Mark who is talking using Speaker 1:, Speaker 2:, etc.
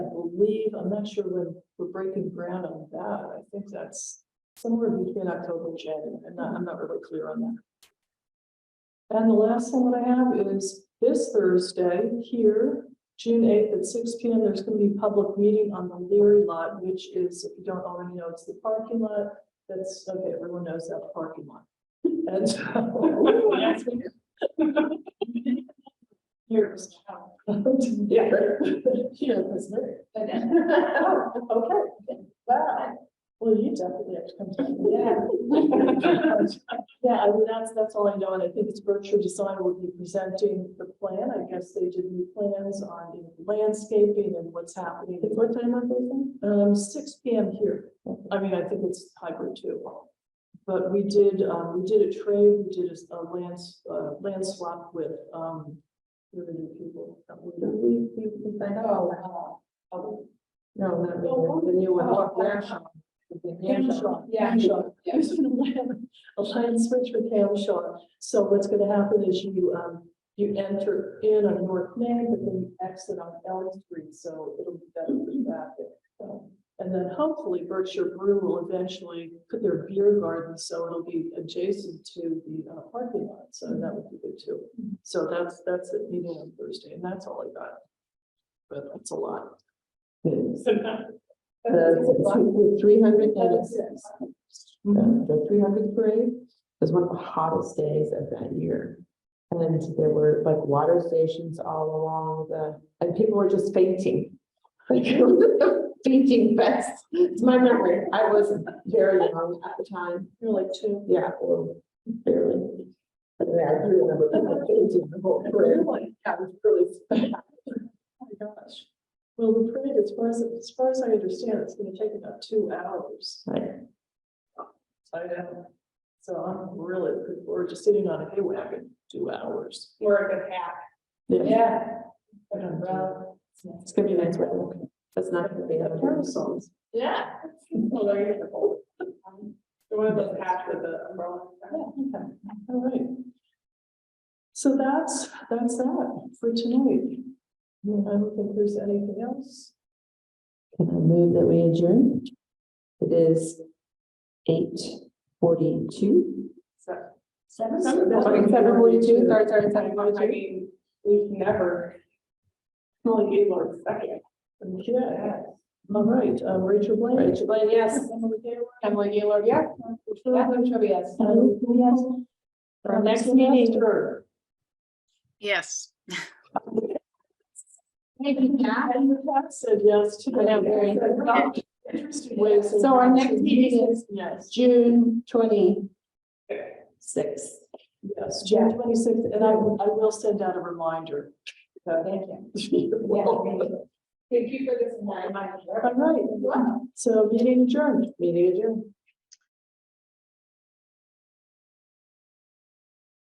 Speaker 1: believe, I'm not sure when we're breaking ground on that. I think that's somewhere between October and January. I'm not, I'm not really clear on that. And the last one that I have is this Thursday here, June eighth at six P M. There's gonna be a public meeting on the Leary lot, which is, if you don't already know, it's the parking lot. That's, okay, everyone knows that parking lot. And so. Here's how. Yeah. She knows this lyric. Oh, Okay, wow. Well, you definitely have to come to me. Yeah. Yeah, I mean, that's, that's all I know, and I think it's Berkshire Design will be presenting the plan. I guess they did new plans on the landscaping and what's happening. What time are they? Um, six P M here. I mean, I think it's hybrid too. But we did, um, we did a trade, we did a lands, uh, land swap with, um, with the new people.
Speaker 2: We, we, we find out. Oh, no, not really, the new one,
Speaker 1: Oh, oh.
Speaker 2: National. The
Speaker 1: Hamshaw.
Speaker 2: National. Yeah.
Speaker 1: Hamshaw. There's been a land, a land switch with Hamshaw. So what's gonna happen is you, um, you enter in on North Main, but then you exit on Elm Street, so it'll be better for traffic. So, And then hopefully Berkshire Brew will eventually put their beer garden, so it'll be adjacent to the uh, parking lot, so that would be good too. So that's, that's the meeting on Thursday, and that's all I got. But that's a lot.
Speaker 2: The three hundred,
Speaker 1: Mhm.
Speaker 2: the three hundred parade was one of the hottest days of that year. And there were like water stations all along the, and people were just fainting. Like, it was a Fainting fest, it's my memory, I wasn't very young at the time.
Speaker 1: You're like two.
Speaker 2: Yeah, or barely. I mean, I do remember people painting the whole parade. That was really special.
Speaker 1: Oh my gosh. Well, the parade, as far as, as far as I understand, it's gonna take about two hours. I know. So I'm really, looking forward to sitting on a hay wagon, two hours.
Speaker 3: Wear a good hat.
Speaker 2: Yeah,
Speaker 3: Yeah.
Speaker 1: An umbrella.
Speaker 2: it's gonna be nice weather. That's not gonna be
Speaker 1: Yeah,
Speaker 2: that
Speaker 1: parasols.
Speaker 3: Yeah. Although you're the whole. The one of those hats with the umbrella.
Speaker 1: Yeah, okay, all right. So that's, that's that for tonight. I don't think there's anything else.
Speaker 2: Can I move that we adjourn? It is eight forty-two.
Speaker 1: Seven.
Speaker 2: Seven forty-two, sorry, sorry, seven
Speaker 3: I
Speaker 2: forty-two.
Speaker 3: mean, we've never. Only gave our second.
Speaker 1: Yeah, all right, um, Rachel Blaine.
Speaker 2: Rachel Blaine, yes.
Speaker 1: Emily Taylor.
Speaker 2: Emily Gaylord, yeah. Kathleen Trivia, yes. For our next meeting.
Speaker 4: Yes.
Speaker 2: Maybe not.
Speaker 1: And Pat said yes to
Speaker 2: I know, very.
Speaker 1: that. Interesting ways.
Speaker 2: So our next meeting is
Speaker 1: Yes,
Speaker 2: June twenty-sixth.
Speaker 1: yes, June twenty-sixth, and I will, I will send out a reminder. So thank you. All
Speaker 3: Thank you for this.
Speaker 1: right, so meeting adjourned. Meeting adjourned.